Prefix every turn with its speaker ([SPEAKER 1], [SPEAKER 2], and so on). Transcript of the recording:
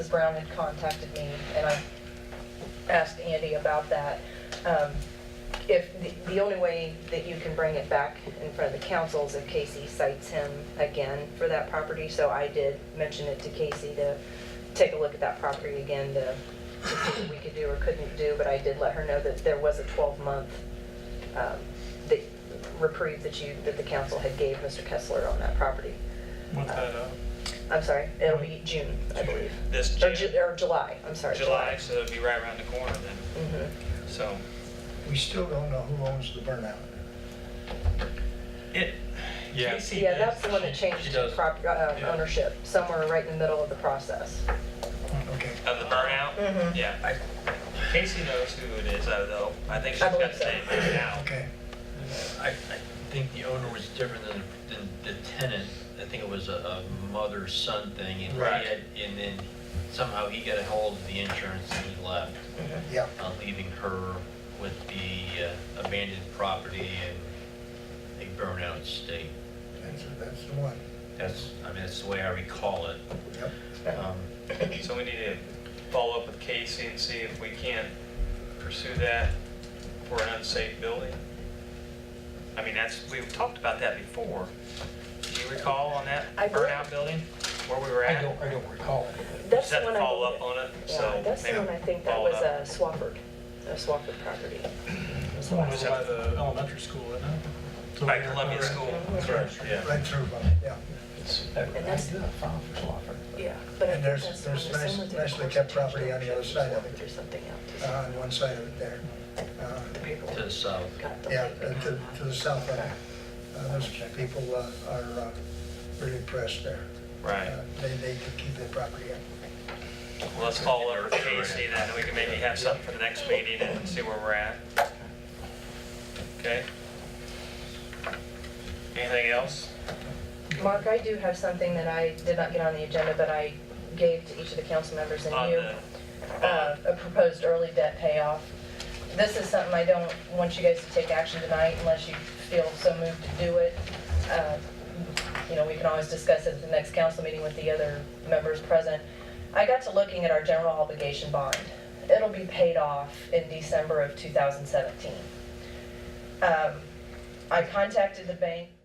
[SPEAKER 1] Brown had contacted me, and I asked Andy about that. Um, If, the- the only way that you can bring it back in front of the council is if Casey cites him again for that property, so I did mention it to Casey to take a look at that property again to to see what we could do or couldn't do, but I did let her know that there was a 12-month um, that- reprieve that you, that the council had gave Mr. Kessler on that property.
[SPEAKER 2] What's that, uh,
[SPEAKER 1] I'm sorry, it'll be June, I believe.
[SPEAKER 2] This
[SPEAKER 1] Or
[SPEAKER 2] June?
[SPEAKER 1] Ju- Or July, I'm sorry.
[SPEAKER 2] July, so it'd be right around the corner then,
[SPEAKER 1] Mhm.
[SPEAKER 2] so.
[SPEAKER 3] We still don't know who owns the burnout.
[SPEAKER 2] It,
[SPEAKER 4] Yeah.
[SPEAKER 2] Casey
[SPEAKER 1] Yeah,
[SPEAKER 2] is-
[SPEAKER 1] that's the one that
[SPEAKER 4] She- she
[SPEAKER 1] changed
[SPEAKER 4] does.
[SPEAKER 1] prop, uh,
[SPEAKER 2] Yeah.
[SPEAKER 1] ownership, somewhere right in the middle of the process.
[SPEAKER 3] Okay.
[SPEAKER 2] Of the burnout?
[SPEAKER 1] Mhm.
[SPEAKER 2] Yeah. I- Casey knows who it is, though, though. I think she's
[SPEAKER 1] I
[SPEAKER 2] got
[SPEAKER 1] believe
[SPEAKER 2] the name
[SPEAKER 1] so.
[SPEAKER 2] written down.
[SPEAKER 3] Okay.
[SPEAKER 4] I, I think the owner was different than, than the tenant. I think it was a, a mother-son thing. and he
[SPEAKER 2] Right.
[SPEAKER 4] had- And then somehow he got a hold of the insurance and he left,
[SPEAKER 3] Yeah.
[SPEAKER 4] uh, leaving her with the uh, abandoned property and a burnout state.
[SPEAKER 3] That's, that's the one.
[SPEAKER 4] That's, I mean, that's the way I recall it.
[SPEAKER 3] Yep.
[SPEAKER 4] Um,
[SPEAKER 2] So we need to follow up with Casey and see if we can't pursue that for an unsafe building. I mean, that's, we've talked about that before. Do you recall on that
[SPEAKER 1] I believe-
[SPEAKER 2] burnout building, where we were at?
[SPEAKER 5] I don't, I don't recall it.
[SPEAKER 1] That's
[SPEAKER 2] have
[SPEAKER 1] the
[SPEAKER 2] to
[SPEAKER 1] one I
[SPEAKER 2] follow
[SPEAKER 1] believe-
[SPEAKER 2] up on it,
[SPEAKER 1] yeah,
[SPEAKER 2] so
[SPEAKER 1] That's the
[SPEAKER 2] maybe
[SPEAKER 1] one, I think that
[SPEAKER 2] follow it
[SPEAKER 1] was
[SPEAKER 2] up.
[SPEAKER 1] a Swafford, a Swafford property. was the
[SPEAKER 5] Someone
[SPEAKER 1] last
[SPEAKER 5] was
[SPEAKER 1] one.
[SPEAKER 5] at the elementary school, isn't it?
[SPEAKER 2] By Columbia School.
[SPEAKER 1] That's right,
[SPEAKER 3] Right through, uh, yeah.
[SPEAKER 1] And that's-
[SPEAKER 5] I do have file for Swafford.
[SPEAKER 1] Yeah, but I think
[SPEAKER 3] And there's-
[SPEAKER 1] that's the
[SPEAKER 3] there's
[SPEAKER 1] one that
[SPEAKER 3] nice-
[SPEAKER 1] someone did a
[SPEAKER 3] nicely
[SPEAKER 1] course
[SPEAKER 3] kept property on the
[SPEAKER 1] construction
[SPEAKER 3] other side of
[SPEAKER 1] Swafford
[SPEAKER 3] it.
[SPEAKER 1] Or something else.
[SPEAKER 3] Uh, On one side of it there. Uh,
[SPEAKER 1] The paperwork
[SPEAKER 4] To the south.
[SPEAKER 1] got
[SPEAKER 3] Yeah,
[SPEAKER 1] delayed.
[SPEAKER 3] uh, to, to the south of it. Uh, Those people uh, are uh, really impressed there.
[SPEAKER 2] Right.
[SPEAKER 3] Uh, They, they could keep their property up.
[SPEAKER 2] Well, let's follow up with Casey, then we can maybe have something for the next meeting and see where we're at. Okay? Anything else?
[SPEAKER 1] Mark, I do have something that I did not get on the agenda, but I gave to each of the council members and
[SPEAKER 2] On
[SPEAKER 1] you.
[SPEAKER 2] the-
[SPEAKER 1] uh, a proposed early debt payoff. This is something I don't want you guys to take action tonight unless you feel so moved to do it. Uh, You know, we can always discuss it at the next council meeting with the other members present. I got to looking at our general obligation bond. It'll be paid off in December of 2017. Um, I contacted the bank.